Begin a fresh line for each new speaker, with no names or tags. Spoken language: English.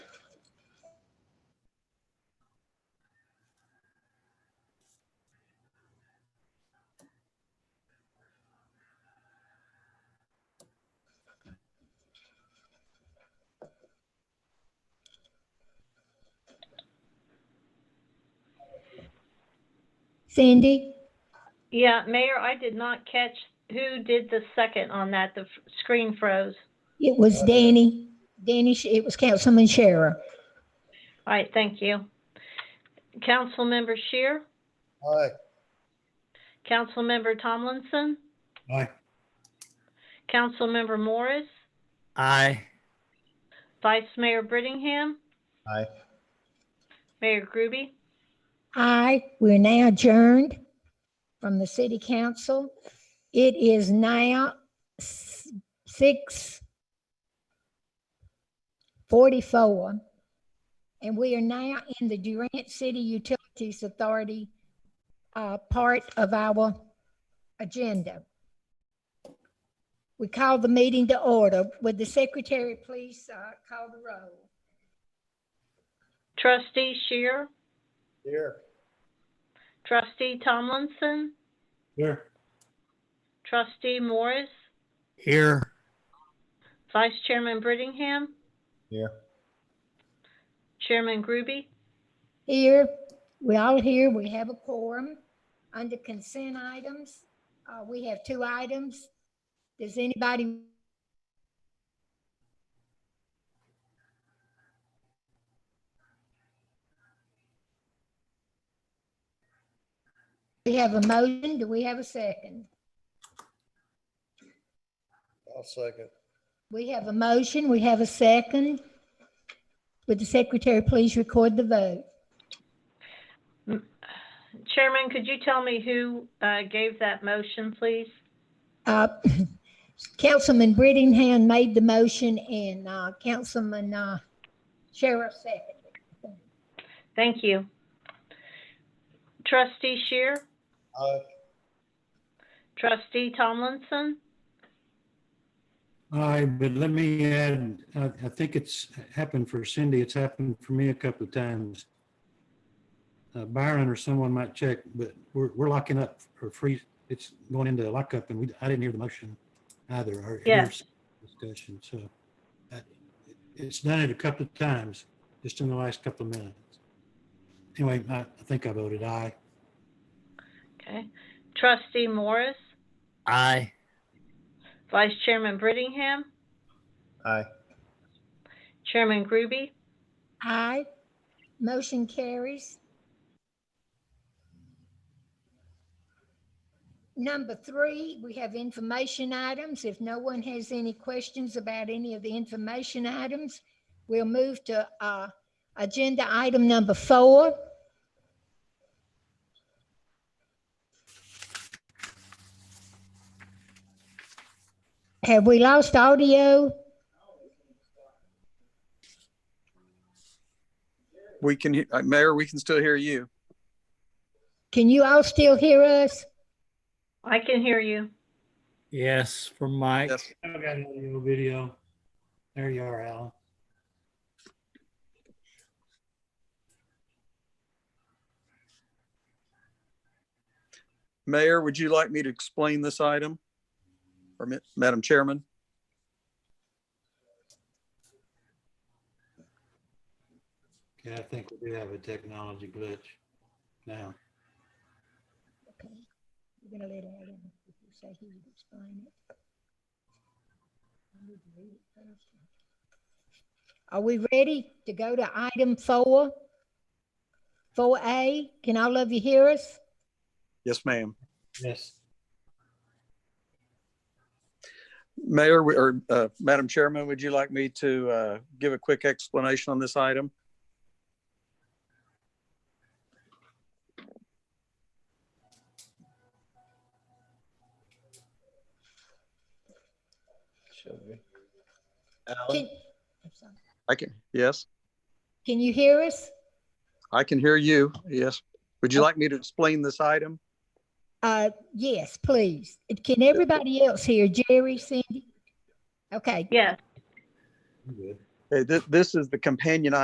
Sandy?
Yeah, Mayor, I did not catch who did the second on that. The f- screen froze.
It was Danny, Danny, Sh- it was Councilman Shara.
All right, thank you. Councilmember Shear,
Aye.
Councilmember Tomlinson,
Aye.
Councilmember Morris,
Aye.
Vice Mayor Brittingham,
Aye.
Mayor Groby.
Aye, we're now adjourned from the city council. It is now s- six forty-four. And we are now in the Durant City Utilities Authority uh, part of our agenda. We call the meeting to order. Would the secretary please uh, call the roll?
Trustee Shear,
Here.
Trustee Tomlinson,
Here.
Trustee Morris,
Here.
Vice Chairman Brittingham,
Here.
Chairman Groby.
Here, we all here, we have a quorum. Under consent items, uh, we have two items. Does anybody? We have a motion, do we have a second?
I'll second.
We have a motion, we have a second. Would the secretary please record the vote?
Chairman, could you tell me who uh, gave that motion, please?
Uh, Councilman Brittingham made the motion and uh, Councilman uh, Sheriff seconded.
Thank you. Trustee Shear,
Aye.
Trustee Tomlinson,
Aye, but let me add, I, I think it's happened for Cindy, it's happened for me a couple of times. Uh, Byron or someone might check, but we're, we're locking up or free, it's going into lockup and we, I didn't hear the motion either. or hear
Yes.
Discussion, so. uh, It's done it a couple of times, just in the last couple of minutes. Anyway, I, I think I voted aye.
okay. Trustee Morris,
Aye.
Vice Chairman Brittingham,
Aye.
Chairman Groby.
Aye. Motion carries. Number three, we have information items. If no one has any questions about any of the information items, we'll move to uh, agenda item number four. Have we lost audio?
We can, he- uh, Mayor, we can still hear you.
Can you all still hear us?
I can hear you.
Yes, from Mike.
Yes.
I've got audio, video. There you are, Alan.
Mayor, would you like me to explain this item? Or Ma- Madam Chairman?
Yeah, I think we do have a technology glitch now.
Okay, we're gonna let Adam, if you say he would explain it. I need to read it first. Are we ready to go to item four? Four A, can all of you hear us?
Yes, ma'am.
Yes.
Mayor, we- or uh, Madam Chairman, would you like me to uh, give a quick explanation on this item?
Should be.
Can
Alan?
I'm sorry.
I can, yes,
Can you hear us?
I can hear you. Yes. Would you like me to explain this item?
Uh, yes, please. And Can everybody else hear? Jerry, Cindy? Okay,
Yes.
I'm good.
Uh, thi- This is the companion